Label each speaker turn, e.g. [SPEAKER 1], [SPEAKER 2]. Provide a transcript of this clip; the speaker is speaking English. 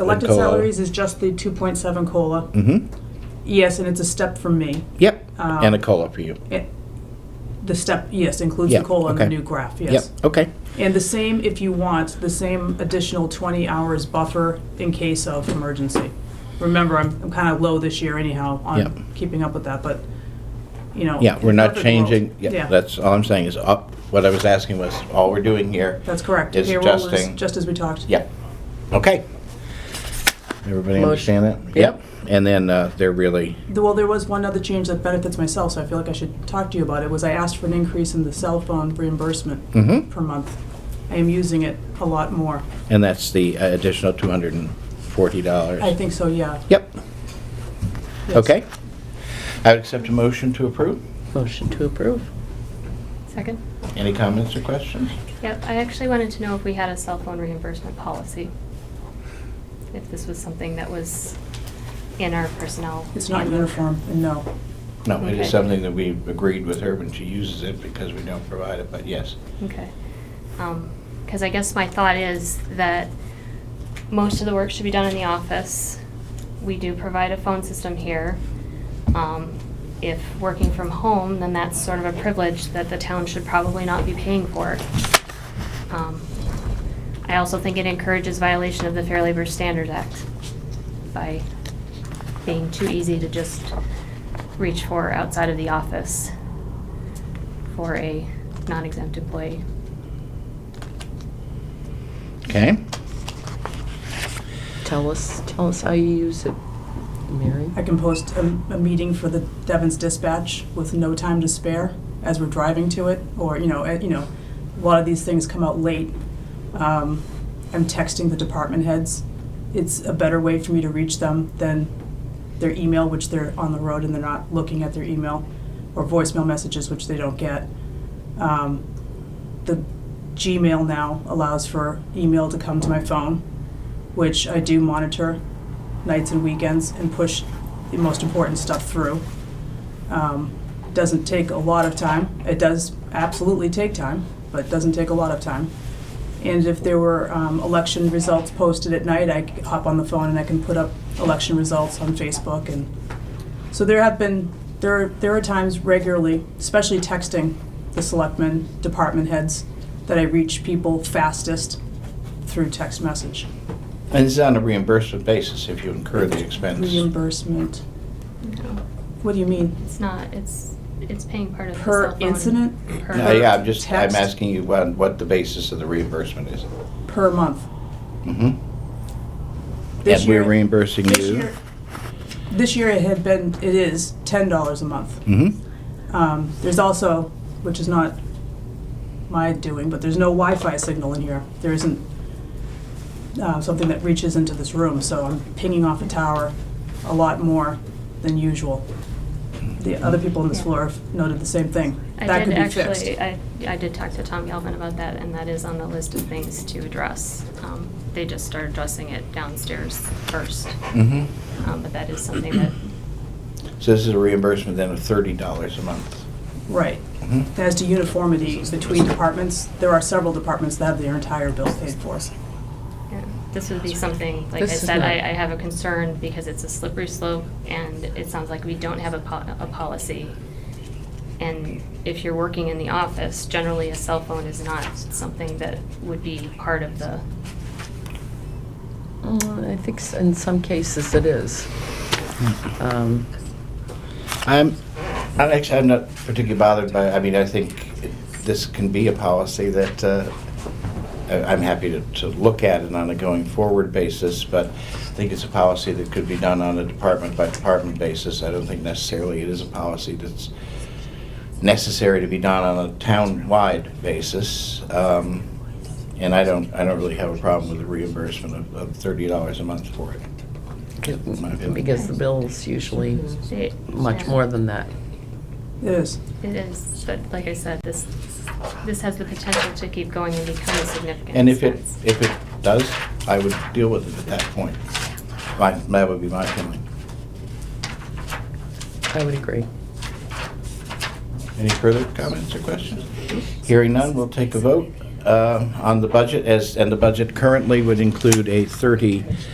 [SPEAKER 1] Elected
[SPEAKER 2] COLA.
[SPEAKER 1] salaries is just the 2.7 COLA.
[SPEAKER 2] Mm-hmm.
[SPEAKER 1] Yes, and it's a step from me.
[SPEAKER 2] Yep.
[SPEAKER 1] Um,
[SPEAKER 2] and a cola for you.
[SPEAKER 1] It- The step, yes, includes
[SPEAKER 2] Yeah,
[SPEAKER 1] the COLA in the
[SPEAKER 2] okay.
[SPEAKER 1] new graph, yes.
[SPEAKER 2] Yep. Okay.
[SPEAKER 1] And the same, if you want, the same additional 20 hours buffer in case of emergency. Remember, I'm, I'm kind of low this year anyhow
[SPEAKER 2] Yep.
[SPEAKER 1] on keeping up with that, but, you know.
[SPEAKER 2] Yeah,
[SPEAKER 1] in
[SPEAKER 2] we're
[SPEAKER 1] a
[SPEAKER 2] not
[SPEAKER 1] perfect world-
[SPEAKER 2] changing. Yeah, that's all I'm saying is up. What I was asking was all we're doing here.
[SPEAKER 1] That's correct.
[SPEAKER 2] It's
[SPEAKER 1] Payroll is
[SPEAKER 2] adjusting.
[SPEAKER 1] Just as we talked.
[SPEAKER 2] Yeah. Okay. Everybody
[SPEAKER 3] Motion.
[SPEAKER 2] understand that?
[SPEAKER 3] Yep.
[SPEAKER 2] And then uh, they're really
[SPEAKER 1] The- Well, there was one other change that benefits myself, so I feel like I should talk to you about it, was I asked for an increase in the cell phone reimbursement
[SPEAKER 2] Mhm.
[SPEAKER 1] per month. I am using it a lot more.
[SPEAKER 2] And that's the uh, additional $240?
[SPEAKER 1] I think so, yeah.
[SPEAKER 2] Yep,
[SPEAKER 1] Yes.
[SPEAKER 2] okay. I would accept a motion to approve.
[SPEAKER 3] Motion to approve.
[SPEAKER 4] Second?
[SPEAKER 2] Any comments or questions?
[SPEAKER 4] Yep, I actually wanted to know if we had a cell phone reimbursement policy. If this was something that was in our personnel.
[SPEAKER 1] It's not uniform, and no.
[SPEAKER 2] No, it
[SPEAKER 4] Okay.
[SPEAKER 2] is something that we agreed with her when she uses it because we don't provide it, but yes.
[SPEAKER 4] Okay. Because I guess my thought is that most of the work should be done in the office. We do provide a phone system here. Um, If working from home, then that's sort of a privilege that the town should probably not be paying for. Um, I also think it encourages violation of the Fair Labor Standards Act by being too easy to just reach for outside of the office for a non-exempt employee.
[SPEAKER 2] Okay,
[SPEAKER 3] Tell us, tell us how you use it, Mary.
[SPEAKER 1] I can post a, a meeting for the Devon's Dispatch with no time to spare as we're driving to it, or, you know, eh, you know, a lot of these things come out late. Um, I'm texting the department heads. It's a better way for me to reach them than their email, which they're on the road and they're not looking at their email, or voicemail messages, which they don't get. Um, the Gmail now allows for email to come to my phone, which I do monitor nights and weekends and push the most important stuff through. Um, doesn't take a lot of time. It does absolutely take time, but it doesn't take a lot of time. And if there were um, election results posted at night, I could hop on the phone and I can put up election results on Facebook. And so there have been there there are times regularly, especially texting the selectmen, department heads, that I reach people fastest through text message.
[SPEAKER 2] and this is on a reimbursement basis if you incur the expense.
[SPEAKER 1] Reimbursement.
[SPEAKER 4] No,
[SPEAKER 1] What do you mean?
[SPEAKER 4] it's not, it's, it's paying part of the
[SPEAKER 1] Per
[SPEAKER 4] cell phone.
[SPEAKER 1] incident?
[SPEAKER 4] Per-
[SPEAKER 2] No, Yeah, I'm just, I'm
[SPEAKER 1] Text.
[SPEAKER 2] asking you what what the basis of the reimbursement is.
[SPEAKER 1] Per month.
[SPEAKER 2] Mhm.
[SPEAKER 1] This
[SPEAKER 2] And we're
[SPEAKER 1] year-
[SPEAKER 2] reimbursing
[SPEAKER 1] this
[SPEAKER 2] you.
[SPEAKER 1] year- This year it had been, it is ten dollars a month.
[SPEAKER 2] hmm
[SPEAKER 1] Um, there's also, which is not my doing, but there's no Wi-Fi signal in here. There isn't uh, something that reaches into this room, so I'm pinging off a tower a lot more than usual. The other people on this floor have noted the same thing.
[SPEAKER 4] I
[SPEAKER 1] That
[SPEAKER 4] did
[SPEAKER 1] could be fixed.
[SPEAKER 4] actually, uh, I, I did talk to Tom Galvin about that, and that is on the list of things to address. Um, They just started addressing it downstairs first,
[SPEAKER 2] hmm
[SPEAKER 4] Um, but that is something that,
[SPEAKER 2] So this is a reimbursement then of thirty dollars a month.
[SPEAKER 1] Right.
[SPEAKER 2] Mhm.
[SPEAKER 1] As to uniformity between departments, there are several departments that have their entire bill paid for.
[SPEAKER 4] yeah, this would be something, like I
[SPEAKER 3] This is
[SPEAKER 4] said, I,
[SPEAKER 3] not-
[SPEAKER 4] I have a concern because it's a slippery slope, and it sounds like we don't have a po- a policy. And if you're working in the office, generally a cell phone is not something that would be part of the
[SPEAKER 3] Uh, I think s- in some cases it is. Um,
[SPEAKER 2] I'm, I'm Um, actually, I'm not particularly bothered by, I mean, I think this can be a policy that, uh, I- I'm happy to, to look at it on a going forward basis, but I think it's a policy that could be done on a department by department basis. I don't think necessarily it is a policy that's necessary to be done on a town-wide basis. Um, And I don't, I don't really have a problem with the reimbursement of, of thirty dollars a month for it.
[SPEAKER 3] Because the bill's usually
[SPEAKER 4] It-
[SPEAKER 3] much
[SPEAKER 4] yeah.
[SPEAKER 3] more than that.
[SPEAKER 1] It is.
[SPEAKER 4] It is, but like I said, this, this has the potential to keep going and become a significant
[SPEAKER 2] And if it,
[SPEAKER 4] expense.
[SPEAKER 2] if it does, I would deal with it at that point. My, that would be my feeling.
[SPEAKER 3] I would agree.
[SPEAKER 2] Any further comments or questions? Hearing none, we'll take a vote uh, on the budget as, and the budget currently would include a 30